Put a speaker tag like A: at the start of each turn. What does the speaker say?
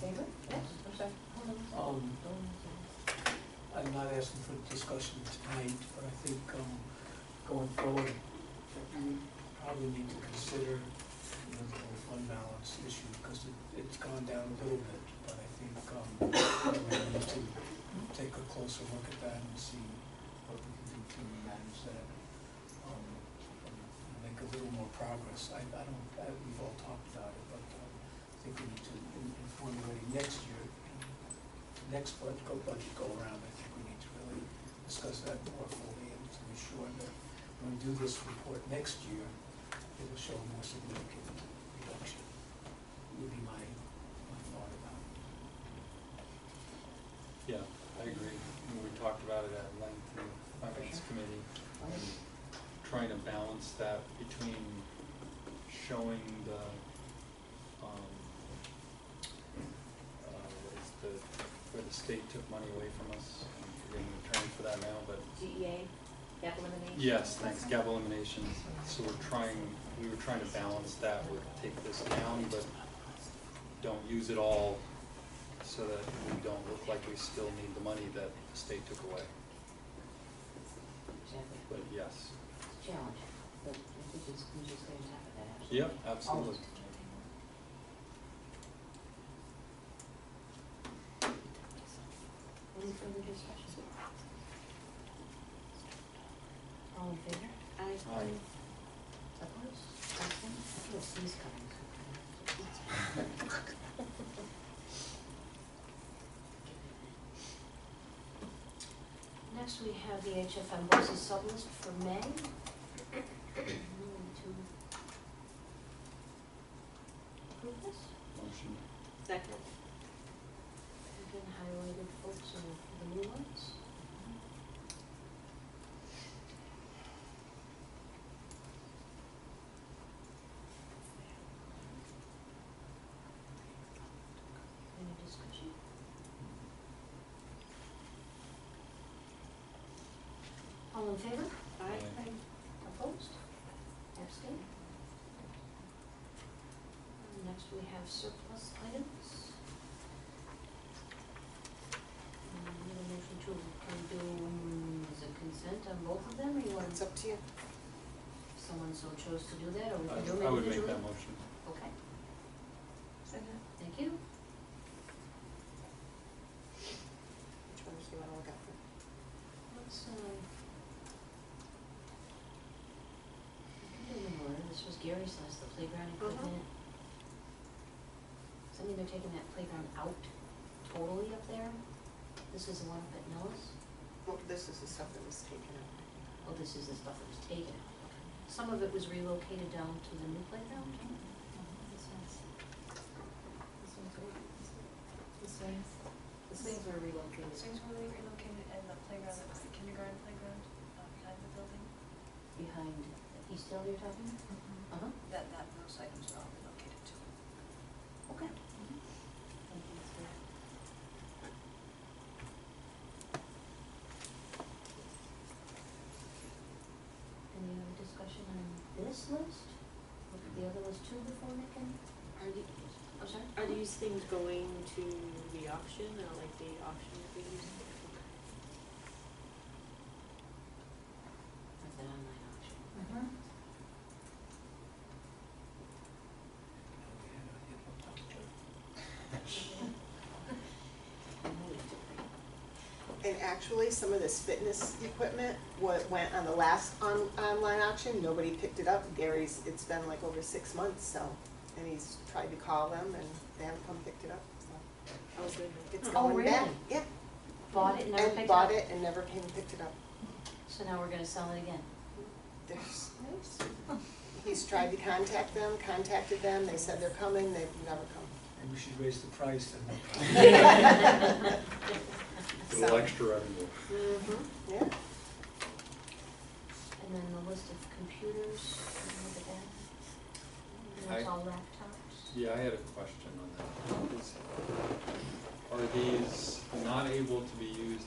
A: favor? Yes, I'm sorry.
B: Um, I'm not asking for discussion tonight, but I think, um, going forward, that we probably need to consider, you know, the whole fund balance issue, because it, it's gone down a little bit, but I think, um, we need to take a closer look at that and see what we can do to manage that. um, and Make a little more progress. I, I don't, I, we've all talked about it, but, um, I think we need to, in, in formulating next year, you know, next budget, go budget go around, I think we need to really discuss that more fully and to be sure that when we do this report next year, it will show a more significant reduction, would be my, my thought about it.
C: Yeah, I agree. And We talked about it at length in the finance committee, and trying to balance that between showing the, um, uh, what is the, where the state took money away from us, I'm forgetting the term for that now, but
A: DEA, gap elimination?
C: Yes, thanks, gap elimination, so we're trying, we were trying to balance that with take this down, but don't use it all so that we don't look like we still need the money that the state took away,
A: Exactly.
C: but yes.
A: It's a challenge, but I think it's, we just going to tap at that, absolutely.
C: Yep, absolutely.
A: Any further discussion? All in favor? Aye.
C: Aye.
A: Opposed? Abstained? I feel a sneeze coming. Next, we have the HFM buses sublist for May. Move to approve this?
C: Motion,
D: Second.
A: Again, highlighted folks are the new ones. Any discussion? All in favor?
C: Aye.
A: Opposed? Abstained? And Next, we have surplus items. Um, we have a motion to, can we do, um, is it consent on both of them, or you want,
D: It's up to you.
A: someone so chose to do that, or we
C: I-
A: can do them individually?
C: I would make that motion.
A: Okay,
D: Second.
A: thank you.
D: Which ones do you wanna look at first?
A: Let's, uh, I can do them in order, this was Gary's last, the playground
D: Uh-huh.
A: equipment. So I mean, they're taking that playground out totally up there. This is the one up at Noah's.
D: Well, this is the stuff that was taken out.
A: Oh, this is the stuff that was taken out. Some of it was relocated down to the new playground.
E: Mm-hmm. This one's, this one's, re- this one- this one's,
D: The swings were
E: the
D: relocated.
E: swings were really relocated and the playground, that was the kindergarten playground uh, behind the building.
A: Behind East Hill you're talking? Uh-huh,
E: That, that, those items are all relocated too.
A: okay. Thank you, that's good. Any other discussion on this list? Look at the other list too before making,
D: Are the,
A: I'm sorry?
D: are these things going to the auction, or like the auction that they use?
A: That's an online auction. I know we do.
F: And actually, some of this fitness equipment, what went on the last on, online auction, nobody picked it up. Gary's, it's been like over six months, so, and he's tried to call them and they haven't come picked it up, so.
D: Oh, goodness.
F: It's
A: Oh,
F: going back,
A: really?
F: yeah.
A: Bought it, never picked
F: And
A: it
F: bought
A: up.
F: it and never came and picked it up.
A: So now we're gonna sell it again.
F: There's, he's tried to contact them, contacted them, they said they're coming, they've never come.
B: And we should raise the price and.
C: A little
F: So-
C: extra revenue.
D: Mm-hmm.
F: Yeah,
A: And then the list of computers, and look at that. And it's
C: I-
A: all laptops.
C: Yeah, I had a question on that. Is- Are these not able to be used